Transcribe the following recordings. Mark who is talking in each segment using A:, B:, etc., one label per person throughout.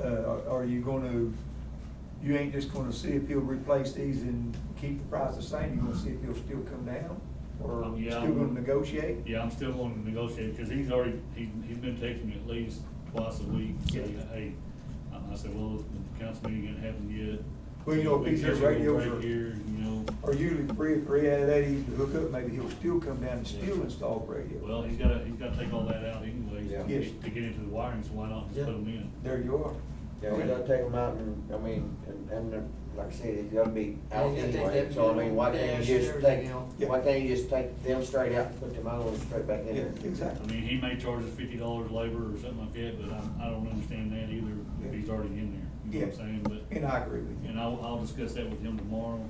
A: Uh, are you gonna, you ain't just gonna see if he'll replace these and keep the price the same, you gonna see if he'll still come down? Or
B: Um, yeah,
A: still gonna
B: I'm-
A: negotiate?
B: Yeah, I'm still going to negotiate, because he's already, he, he's been texting me at least twice a week, saying,
A: Yeah.
B: hey, and I said, well, the council meeting ain't happened yet.
A: Well, you know, if
B: We
A: he's
B: catch
A: here
B: a little
A: radios
B: break
A: are-
B: Here, you know,
A: Or usually three, three out of that, he's to hook up, maybe he'll still come down and still
B: Yeah.
A: install the radio.
B: well, he's gotta, he's gotta take all that out anyways,
C: Yeah.
B: to
A: Yes.
B: get, to get into the wiring, so why not just
C: Yeah.
B: put them in?
A: There you are.
C: Yeah, we gotta take them out and, I mean, and, and they're- like I said, it's gotta be
D: Yeah,
C: out
D: you gotta
C: anyway,
D: take
C: so I mean, why
D: that
C: can't
D: dash
C: you
D: and
C: just
D: everything
C: take,
D: out.
C: why can't you just take them straight out and put them out and straight back in
A: Yeah,
C: there?
B: I
A: exactly.
B: mean, he may charge us fifty dollars labor or something like that, but I, I don't understand that either, if
A: Yeah.
B: he's already in there, you know what
A: Yeah.
B: I'm saying,
A: And I agree with
B: but,
A: you.
B: and I'll, I'll discuss that with him tomorrow,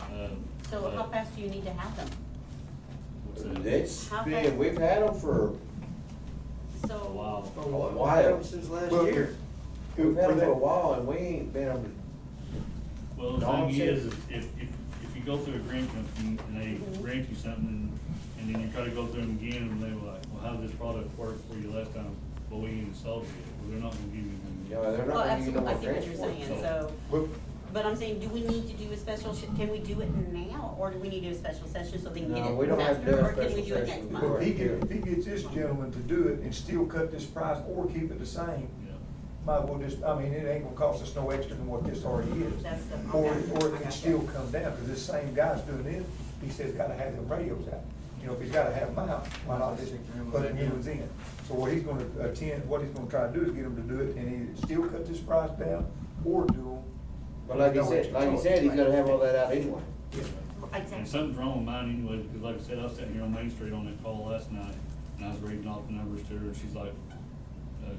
B: um.
E: So
B: but-
E: how fast do you need to have them?
B: what's that?
C: That's
E: How
C: been,
E: fast-
C: we've had them for,
E: So.
B: Wow.
D: Oh,
F: Oh,
C: Why?
D: Why, since last
A: Well,
D: year.
C: we've
A: for
C: had them for
A: that-
C: a while and we ain't been, able
B: Well, the
C: No,
B: thing
C: I'm
B: is,
C: serious.
B: if, if, if you go through a grant company and they
E: Mhm.
B: grant you something and, and then you try to go through them again and they were like, well, how did this product work for you last time? Well, we ain't installed it yet. Well, they're not gonna give you
C: to,
B: anything.
C: you know, they're
E: Well,
C: not gonna use no
E: absolutely, I
C: more
E: see what you're
C: transport.
E: saying,
B: so-
E: so,
A: Well,
E: but I'm saying, do we need to do a special, sh- can we do it now, or do we need to do a special session so they can get
C: No, we
E: it
C: don't have to do
E: faster,
C: a
E: or can we
C: special
E: do it next
C: session.
A: Well, if
E: month?
A: he gets, if he gets this gentleman to do it and still cut this price or keep it the same,
B: Yeah.
A: might well just, I mean, it ain't gonna cost us no extra than what this already is.
E: That's the-
A: Or,
E: okay,
A: or
E: I
A: it can
E: gotcha.
A: still come down, cause this same guy's doing it, he says gotta have them radios out. You know, if he's gotta have them out, why not just put the new ones in? So what he's gonna attend, what he's gonna try to do is get him to do it and either still cut this price down or do them.
C: But like you said, like you said, he's gonna have all that out anyway.
B: And
E: Exactly.
B: something's wrong with mine anyway, because like I said, I was sitting here on Main Street on that call last night and I was reading off the numbers to her and she's like,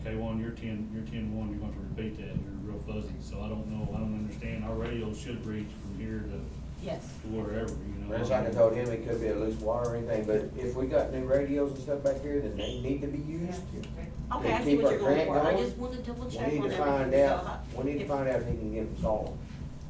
B: okay, one, you're ten, you're ten one, you're gonna have to repeat that. You're real fuzzy. So I don't know, I don't understand. Our radio should reach from here to
E: Yes,
B: to wherever, you know.
C: That's like I told him, it could be a loose wire or anything, but if we got new radios and stuff back here, then they need to be used.
E: okay, I
C: They
E: see
C: keep
E: what
C: our
E: you're going
C: grant
E: for, I
C: going.
E: just wanted to double
C: We
E: check on
C: need to
E: everything.
C: find
E: so
C: out,
E: I-
C: we need to
E: if-
C: find out if he can get them solved.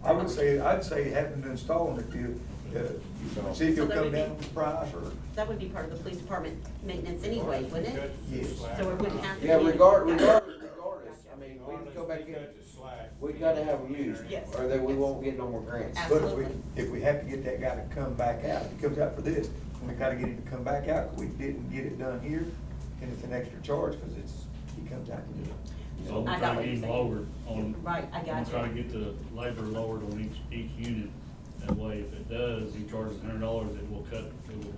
A: I would say, I'd say have him to install them if you, uh, see if he'll
E: So that
A: come
E: would be-
A: down with the price or.
E: That would be part of the police department maintenance anyway, wouldn't it?
A: Yes.
E: So it wouldn't have to be.
C: Yeah, regard,
E: Gotcha.
C: regardless, regardless, I mean, we can
F: Regardless,
C: go back
F: we
C: in,
F: cut the slack.
C: we gotta have them used,
E: Yes.
C: or then we won't get no more grants.
A: But
E: Absolutely.
A: if we, if we have to get that guy to come back out, if he comes out for this, then we gotta get him to come back out, 'cause we didn't get it done here, and it's an extra charge, cause it's, he comes out to do it.
B: So I'm
E: I got
B: trying to
E: what
B: get
E: you're
B: him
E: saying.
B: lowered on.
E: Right, I got
B: I'm trying to
E: you.
B: get the labor lowered on each, each unit. That way, if it does, he charges a hundred dollars, it will cut, it will.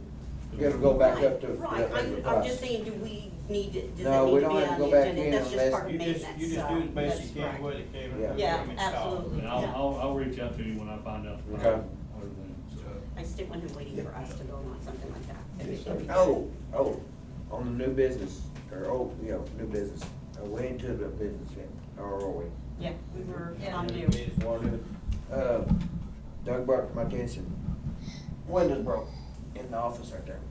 C: It'll go back
E: Right,
C: up to-
E: Right,
C: up to the
E: I'm, I'm
C: price.
E: just saying, do we need to, does
C: No,
E: that
C: we
E: need to
C: don't
E: be
C: have to
E: on
C: go
E: the
C: back
E: agenda?
C: in
E: That's just
C: unless-
E: part of
F: You just,
E: maintenance,
F: you just do
E: so
F: as best
E: that's
F: you can
E: right.
F: with it, Kevin.
C: Yeah.
E: Yeah,
F: Give 'em a shot.
E: absolutely.
B: And I'll,
E: Yeah.
B: I'll, I'll reach out to you when I find out. the
C: Okay.
B: problem, everything, so.
E: I still want him waiting for us to go on something like that. That'd be-
A: Yes, sir.
E: that'd be good.
C: Oh, oh, on the new business, or, oh, you know, new business, Uh, we ain't to the business yet, or are we?
E: Yeah, we were on
F: Yeah.
E: due.
C: Wanted, uh, Doug brought to my attention, windows broke in the office right there.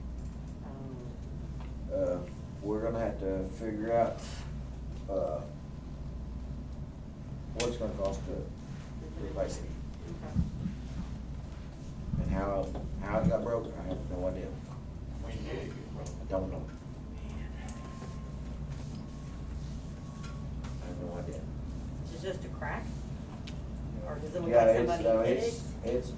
E: Oh.
C: Uh, we're gonna have to figure out, uh, what it's gonna cost to replace it. And how, how it got broken, I have no idea.
F: We did it, bro.
C: I don't know. I have no idea.
E: Is it just a crack? Or does it look
C: Yeah,
E: like
C: it's, uh,
E: somebody hit it?
C: it's, it's,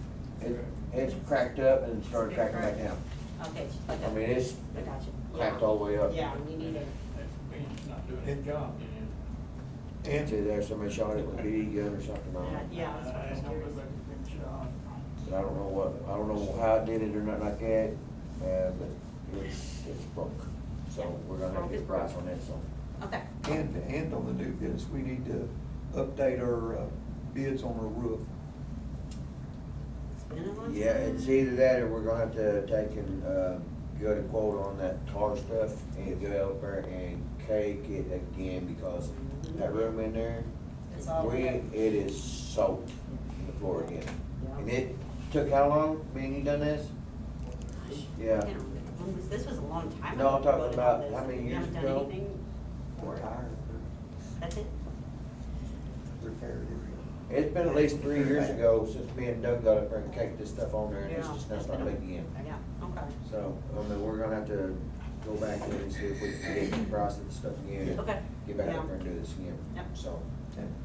C: it- it's cracked up and started
E: Been
C: cracking back
E: cracked.
C: down.
E: Okay, it's just like
C: I
E: a-
C: mean, it's
E: I got you.
C: cracked all the way up.
E: Yeah, we need it.
F: That's- we're just not doing a job.
C: See,
A: And,
C: there's somebody shot it with a BB gun or something on it.
E: Yeah, that's what I was
F: Uh,
E: curious.
C: But I don't know what, I don't know how I did it or nothing like that, uh, but it's, it's broke. So we're gonna have to get a price on that, so.
E: Okay.
A: and, and on the new business, we need to update our uh, bids on our roof.
E: It's been a long
C: Yeah,
E: time.
C: it's either that or we're gonna have to take and, uh, go to quote on that tar stuff and go out there and cake it again because that room in there,
E: It's all
C: we,
E: wet.
C: it is soaked in the floor again. And it took how long, being you done this?
E: Gosh,
C: yeah.
E: I can't remember. When was- This was a long time ago.
C: No, I'm
E: we
C: talking
E: voted on
C: about
E: this,
C: how many
E: and we
C: years
E: haven't done
C: ago?
E: anything for it.
A: Tire
E: That's it?
A: repair
C: It's been at least three years ago since me and Doug got up there and caked this stuff on there and it's
E: Yeah,
C: just
E: it's
C: not
E: been a-
C: starting again.
E: Yeah, okay.
C: So, I mean, we're gonna have to go back in and see if we can get the price of the stuff again.
E: Okay.
C: Get back up there
E: Yeah.
C: and do this again,
E: Yep.
C: so.
A: And